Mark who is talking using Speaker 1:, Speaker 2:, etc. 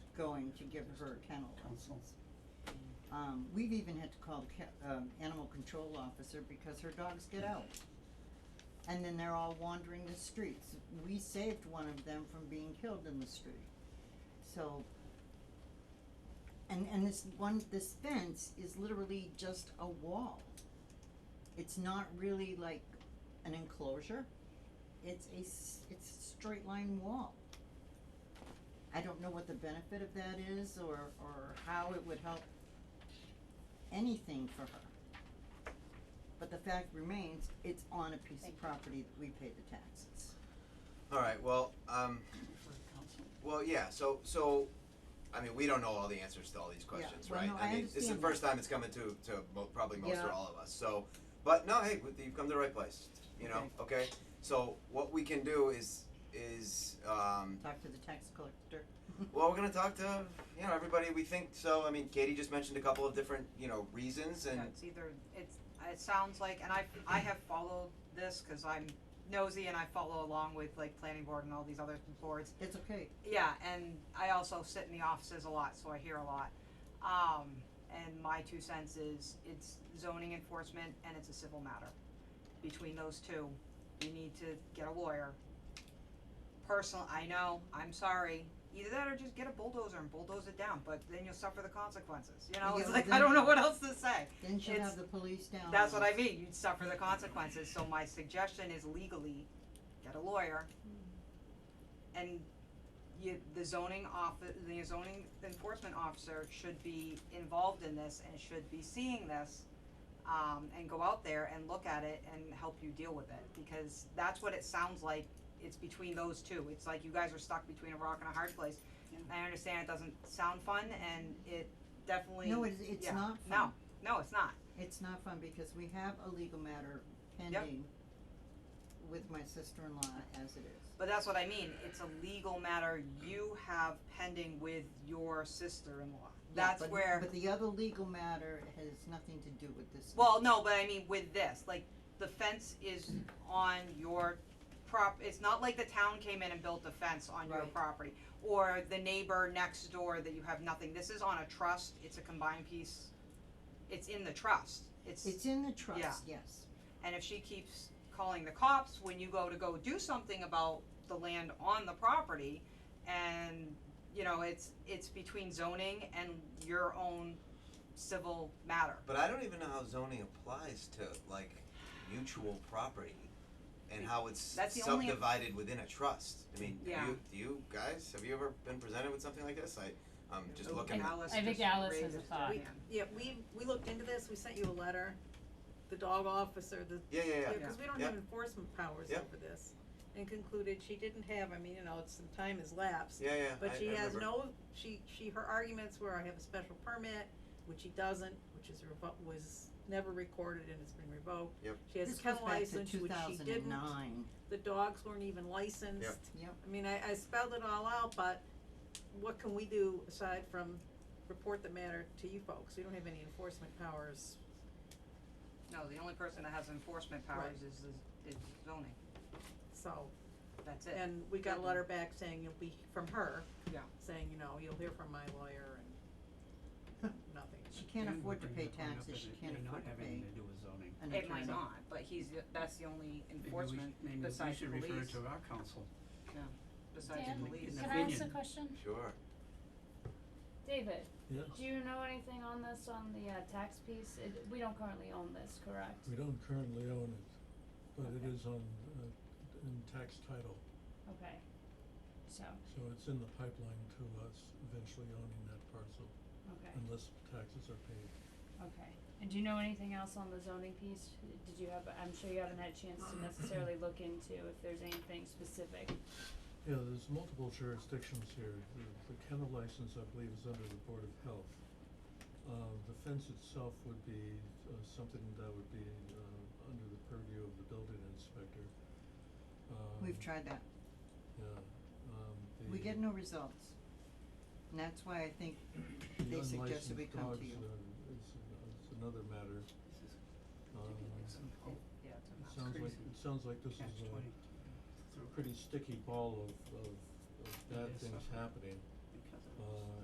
Speaker 1: going to give her a kennel license. Um, we've even had to call the ca- um, animal control officer because her dogs get out. And then they're all wandering the streets. We saved one of them from being killed in the street. So, and, and this one, this fence is literally just a wall. It's not really like an enclosure. It's a, s- it's a straight line wall. I don't know what the benefit of that is or, or how it would help anything for her. But the fact remains, it's on a piece of property that we pay the taxes.
Speaker 2: All right, well, um, well, yeah, so, so, I mean, we don't know all the answers to all these questions,
Speaker 1: well,
Speaker 2: right?
Speaker 1: no, I
Speaker 2: mean, this is the
Speaker 1: understand
Speaker 2: first time it's coming to, to mo- probably most
Speaker 1: Yeah.
Speaker 2: or all of us, so, but no, hey, we- you've come to the right place, you know, okay? So what we can do is, is, um,
Speaker 1: Talk to the tax collector.
Speaker 2: well, we're gonna talk to, you know, everybody we think, so, I mean, Katie just mentioned a couple of different, you know, reasons and,
Speaker 3: Yeah, it's either, it's, it sounds like, and I, I have followed this, cause I'm nosy and I follow along with like planning board and all these other boards.
Speaker 1: It's okay.
Speaker 3: Yeah, and I also sit in the offices a lot, so I hear a lot. Um, and my two cents is, it's zoning enforcement and it's a civil matter. Between those two, you need to get a lawyer. Personal, I know, I'm sorry, either that or just get a bulldozer and bulldoze it down, but then you'll suffer the consequences, you know,
Speaker 1: Yeah,
Speaker 3: it's
Speaker 1: but
Speaker 3: like, I
Speaker 1: then-
Speaker 3: don't know what else to say.
Speaker 1: Then she'll
Speaker 3: It's-
Speaker 1: have the police down.
Speaker 3: That's what I
Speaker 1: and-
Speaker 3: mean, you'd suffer the consequences, so my suggestion is legally, get a lawyer. And you, the zoning office, the zoning enforcement officer should be involved in this and should be seeing this. Um, and go out there and look at it and help you deal with it, because that's what it sounds like, it's between those two, it's like you guys are stuck between a rock and a hard place. I understand it doesn't sound fun and it definitely,
Speaker 1: No, it's, it's
Speaker 3: yeah.
Speaker 1: not
Speaker 3: No.
Speaker 1: fun.
Speaker 3: no, it's not,
Speaker 1: It's not fun because we have a legal matter pending with my sister-in-law as it is.
Speaker 3: But that's what I mean, it's a legal matter you have pending with your sister-in-law.
Speaker 1: Yeah,
Speaker 3: That's
Speaker 1: but-
Speaker 3: where,
Speaker 1: But the other legal matter has nothing to do with this.
Speaker 3: well, no, but I mean with this, like, the fence is on your prop, it's not like the town came in and built the fence on your
Speaker 1: Right.
Speaker 3: property. Or the neighbor next door that you have nothing, this is on a trust, it's a combined piece, it's in the trust, it's,
Speaker 1: It's in the
Speaker 3: Yeah.
Speaker 1: trust, yes.
Speaker 3: and if she keeps calling the cops when you go to go do something about the land on the property and you know it's it's between zoning and your own civil matter
Speaker 2: but I don't even know how zoning applies to, like, mutual property and how it's
Speaker 3: That's the only-
Speaker 2: subdivided within a trust. I mean, do
Speaker 3: Yeah.
Speaker 2: you, do you guys, have you ever been presented with something like this? I, I'm just
Speaker 3: Oh,
Speaker 2: looking.
Speaker 3: Alice
Speaker 4: I think
Speaker 3: just
Speaker 4: Alice
Speaker 3: raised
Speaker 4: has a
Speaker 3: her
Speaker 4: thought.
Speaker 3: hand.
Speaker 5: Yeah, we, we looked into this, we sent you a letter, the dog officer, the,
Speaker 2: Yeah, yeah, yeah.
Speaker 5: yeah, cause we don't
Speaker 2: Yeah.
Speaker 5: have enforcement powers
Speaker 2: Yeah.
Speaker 5: over this. And concluded she didn't have, I mean, you know, it's, some time has lapsed,
Speaker 2: Yeah, yeah.
Speaker 5: but
Speaker 2: I-
Speaker 5: she
Speaker 2: I
Speaker 5: has
Speaker 2: remember.
Speaker 5: no, she, she, her arguments were, I have a special permit, which she doesn't, which is revo- was never recorded and it's been revoked.
Speaker 2: Yep.
Speaker 5: She has
Speaker 1: This goes
Speaker 5: a kennel
Speaker 1: back to
Speaker 5: license,
Speaker 1: two
Speaker 5: which she
Speaker 1: thousand and
Speaker 5: didn't,
Speaker 1: nine.
Speaker 5: the dogs weren't even licensed.
Speaker 1: Yep.
Speaker 5: I mean, I, I spelled it all out, but what can we do aside from report the matter to you folks? We don't have any enforcement powers.
Speaker 3: no the only person that has enforcement powers is, is is zoning
Speaker 5: So,
Speaker 3: that's it
Speaker 5: and we got a letter back saying you'll be, from her.
Speaker 3: Yeah.
Speaker 5: Saying, you know, you'll hear from my lawyer and nothing.
Speaker 1: She can't afford to pay taxes, she can't afford to pay
Speaker 6: It may not have anything to do with zoning.
Speaker 1: an attorney.
Speaker 3: it might not but he's the, that's the only
Speaker 6: Maybe we should-
Speaker 3: enforcement
Speaker 6: maybe
Speaker 3: besides the
Speaker 6: we should
Speaker 3: police
Speaker 6: refer to our council.
Speaker 7: Uh,
Speaker 3: besides
Speaker 4: Dan,
Speaker 3: the police
Speaker 6: An
Speaker 4: Can I ask a
Speaker 6: opinion.
Speaker 4: question?
Speaker 2: Sure.
Speaker 4: David,
Speaker 7: Yes,
Speaker 4: do you know anything on this, on the uh tax piece? It, we don't currently own this, correct?
Speaker 7: we don't currently own it, but it
Speaker 4: Okay.
Speaker 7: is on, uh, in tax title,
Speaker 4: Okay. So,
Speaker 7: so it's in the pipeline to us eventually owning that parcel,
Speaker 4: okay,
Speaker 7: unless taxes are paid.
Speaker 4: okay. And do you know anything else on the zoning piece? Did you have, I'm sure you haven't had a chance to necessarily look into if there's anything specific.
Speaker 7: Yeah, there's multiple jurisdictions here. The, the kennel license, I believe, is under the Board of Health. Uh, the fence itself would be, uh, something that would be, uh, under the purview of the building inspector.
Speaker 1: We've
Speaker 7: Um,
Speaker 1: tried that.
Speaker 7: Yeah, um, the.
Speaker 1: We get no results. And that's why I think they suggested we come to you.
Speaker 7: The unlicensed dogs, uh, is, is another matter. Um,
Speaker 3: yeah it's a mess.
Speaker 7: it sounds like, it sounds like this
Speaker 6: Catch
Speaker 7: is a,
Speaker 6: twenty.
Speaker 7: a pretty sticky ball of, of, of
Speaker 6: It
Speaker 7: bad
Speaker 6: is
Speaker 7: things
Speaker 6: suffering.
Speaker 7: happening.
Speaker 6: Because of this.
Speaker 7: Uh,